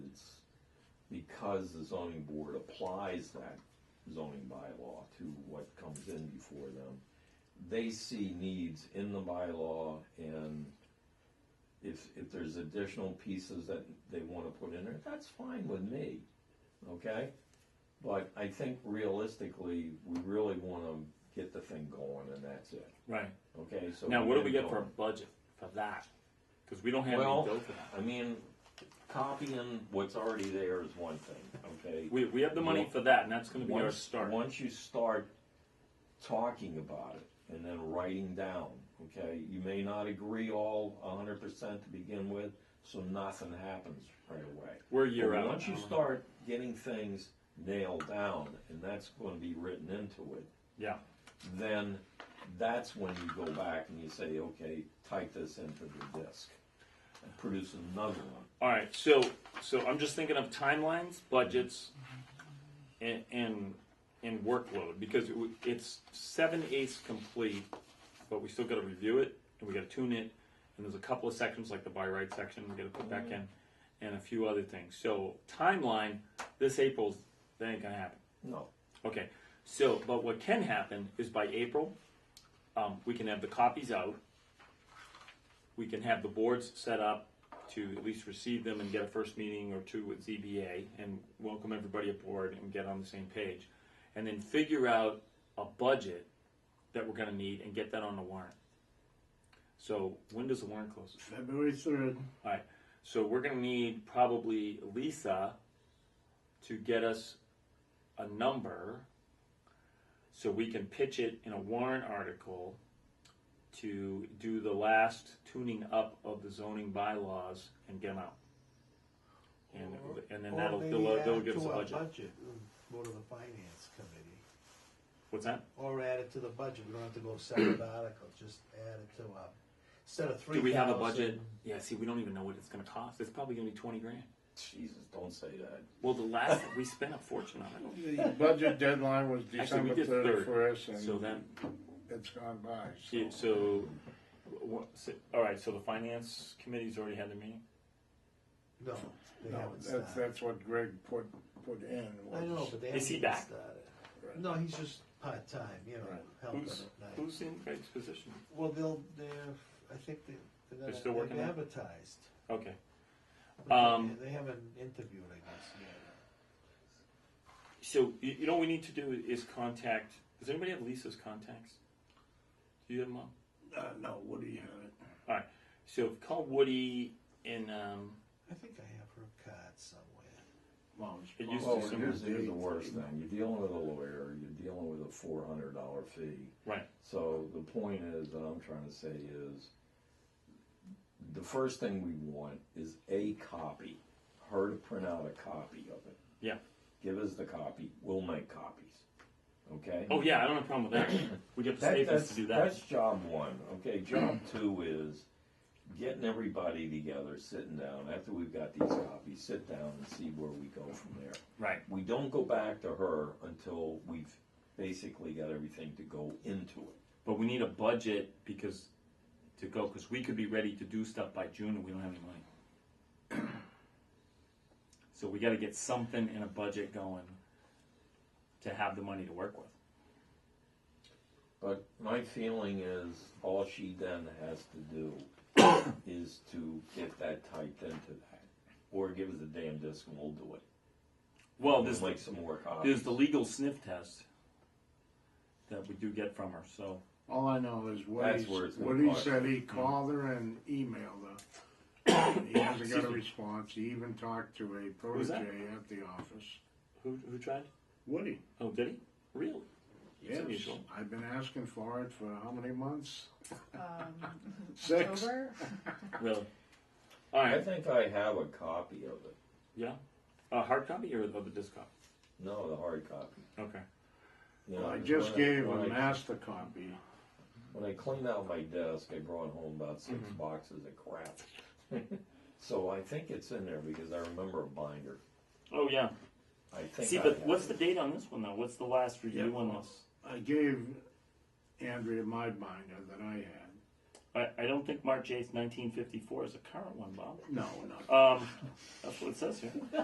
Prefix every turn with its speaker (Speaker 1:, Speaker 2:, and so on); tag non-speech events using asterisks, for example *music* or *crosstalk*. Speaker 1: because the zoning board applies that zoning bylaw to what comes in before them, they see needs in the bylaw and if, if there's additional pieces that they wanna put in there, that's fine with me, okay? But I think realistically, we really wanna get the thing going and that's it,
Speaker 2: Right.
Speaker 1: okay? So
Speaker 2: Now, what do
Speaker 1: get
Speaker 2: we
Speaker 1: it
Speaker 2: get for a
Speaker 1: going.
Speaker 2: budget for that? Because we don't have
Speaker 1: Well,
Speaker 2: any bill for that.
Speaker 1: I mean, copying what's already there is one thing, okay?
Speaker 2: We, we have the money for that, and that's going to be our
Speaker 1: Once,
Speaker 2: start.
Speaker 1: once you start talking about it and then writing down, okay, you may not agree all hundred percent to begin with, so nothing happens right away.
Speaker 2: We're a year
Speaker 1: But
Speaker 2: out. Uh-huh.
Speaker 1: Once you start getting things nailed down, and that's gonna be written into it,
Speaker 2: Yeah.
Speaker 1: then that's when you go back and you say, okay, type this into the disk. and Produce another one.
Speaker 2: All right. So, so I'm just thinking of timelines, budgets, and and, and workload because it, w- it's seven eighths complete, but we still got to review it and we got to tune it. And there's a couple of sections like the by right section we got to put back in, and a few other things. So timeline, this April's that ain't gonna happen.
Speaker 1: No,
Speaker 2: Okay, so, but what can happen is by April, um, we can have the copies out. We can have the boards set up to at least receive them and get a first meeting or two with ZBA and welcome everybody aboard and get on the same page. And then figure out a budget that we're gonna need and get that on the warrant. So when does the warrant close?
Speaker 3: February third.
Speaker 2: All right, so we're gonna need probably Lisa to get us a number so we can pitch it in a warrant article to do the last tuning up of the zoning bylaws and get them out. And, and then
Speaker 4: Or
Speaker 2: that'll,
Speaker 4: maybe
Speaker 2: they'll, uh, they'll
Speaker 4: add
Speaker 2: give us a
Speaker 4: to our
Speaker 2: budget.
Speaker 4: and Go to the finance committee,
Speaker 2: What's that?
Speaker 4: or add it to the budget, we don't have to go separate article, *clears throat* just add it to our, instead of three
Speaker 2: Do
Speaker 4: thousand.
Speaker 2: we have a budget? Yeah, see, we don't even know what it's gonna cost. It's probably gonna be twenty grand.
Speaker 1: Jesus, don't say that.
Speaker 2: Well, the last, we spent a fortune on it.
Speaker 3: The budget deadline was
Speaker 2: Actually, we
Speaker 3: December
Speaker 2: did third.
Speaker 3: thirty-first,
Speaker 2: So
Speaker 3: and
Speaker 2: then,
Speaker 3: it's gone by,
Speaker 2: Yeah,
Speaker 3: so.
Speaker 2: so, what, so, all right, so the finance committee's already had their meeting?
Speaker 4: No, they
Speaker 3: No,
Speaker 4: haven't
Speaker 3: that's,
Speaker 4: started.
Speaker 3: that's what Greg put, put in.
Speaker 4: I know,
Speaker 3: was-
Speaker 4: but they
Speaker 2: Is
Speaker 4: haven't
Speaker 2: he
Speaker 4: even
Speaker 2: back?
Speaker 4: started. No, he's just part-time, you know,
Speaker 3: Right.
Speaker 4: helping
Speaker 2: Who's,
Speaker 4: at night.
Speaker 2: who's in Craig's position?
Speaker 4: Well, they'll, they're, I think they, they're gonna-
Speaker 2: They're still working
Speaker 4: they've
Speaker 2: on it?
Speaker 4: advertised.
Speaker 2: Okay, Um,
Speaker 4: They haven't interviewed, I guess, yet.
Speaker 2: so, you, you know what we need to do is contact, does anybody have Lisa's contacts? Do you have them all?
Speaker 3: Uh, no, Woody had it.
Speaker 2: All right, so call Woody and, um,
Speaker 4: I think I have her card somewhere.
Speaker 3: Well, it's
Speaker 2: It used to
Speaker 1: Well,
Speaker 3: probably-
Speaker 1: here's, here's the worst thing, you're dealing with a lawyer, you're dealing with a four hundred dollar fee.
Speaker 2: right,
Speaker 1: So the point is, that I'm trying to say is, the first thing we want is a copy, her to print out a copy of it.
Speaker 2: yeah.
Speaker 1: Give us the copy, we'll make copies, okay?
Speaker 2: Oh, yeah, I don't have a problem with that. We get the
Speaker 1: That-
Speaker 2: savings
Speaker 1: that's,
Speaker 2: to do
Speaker 1: that's
Speaker 2: that.
Speaker 1: job one, okay, job *clears throat* two is getting everybody together, sitting down, after we've got these copies, sit down and see where we go from there.
Speaker 2: Right,
Speaker 1: We don't go back to her until we've basically got everything to go into it.
Speaker 2: but we need a budget because, to go, because we could be ready to do stuff by June and we don't have any money. *clears throat* So we gotta get something in a budget going to have the money to work with.
Speaker 1: But my feeling is, all she then has to *coughs* do is to get that typed into that, or give us a damn disc and we'll do it.
Speaker 2: Well,
Speaker 1: We'll
Speaker 2: there's
Speaker 1: make
Speaker 2: like,
Speaker 1: some more
Speaker 2: there's
Speaker 1: copies.
Speaker 2: the legal sniff test that we do get from her, so.
Speaker 3: All I know is
Speaker 1: That's
Speaker 3: Woody,
Speaker 1: where it's gonna
Speaker 3: Woody
Speaker 1: cost.
Speaker 3: said he called her and emailed her. He hasn't got a response, he even talked to a
Speaker 2: was that?
Speaker 3: protege at the office.
Speaker 2: Who, who tried?
Speaker 3: Woody,
Speaker 2: Oh, did he? Really? It's
Speaker 3: yes,
Speaker 2: unusual.
Speaker 3: I've been asking for it for how many months?
Speaker 5: um,
Speaker 3: *laughs* Six.
Speaker 5: over.
Speaker 2: Really? All
Speaker 1: I
Speaker 2: right,
Speaker 1: think I have a copy of it.
Speaker 2: yeah. A hard copy or, or the disc copy?
Speaker 1: No, the hard copy.
Speaker 2: Okay.
Speaker 1: You know,
Speaker 3: I
Speaker 1: when
Speaker 3: just gave
Speaker 1: when
Speaker 3: a
Speaker 1: I-
Speaker 3: master copy.
Speaker 1: When I cleaned out my desk, I brought home about six boxes of crap. *laughs* So I think it's in there because I remember a binder.
Speaker 2: Oh, yeah.
Speaker 1: I think
Speaker 2: See,
Speaker 1: I
Speaker 2: but
Speaker 1: have
Speaker 2: what's
Speaker 1: it.
Speaker 2: the date on this one though? What's the last review
Speaker 3: Yeah.
Speaker 2: on this?
Speaker 3: I gave Andrea my binder that I had.
Speaker 2: I, I don't think March eighth, nineteen fifty-four is the current one, Bob.
Speaker 3: No, not
Speaker 2: Um, that's what it says here.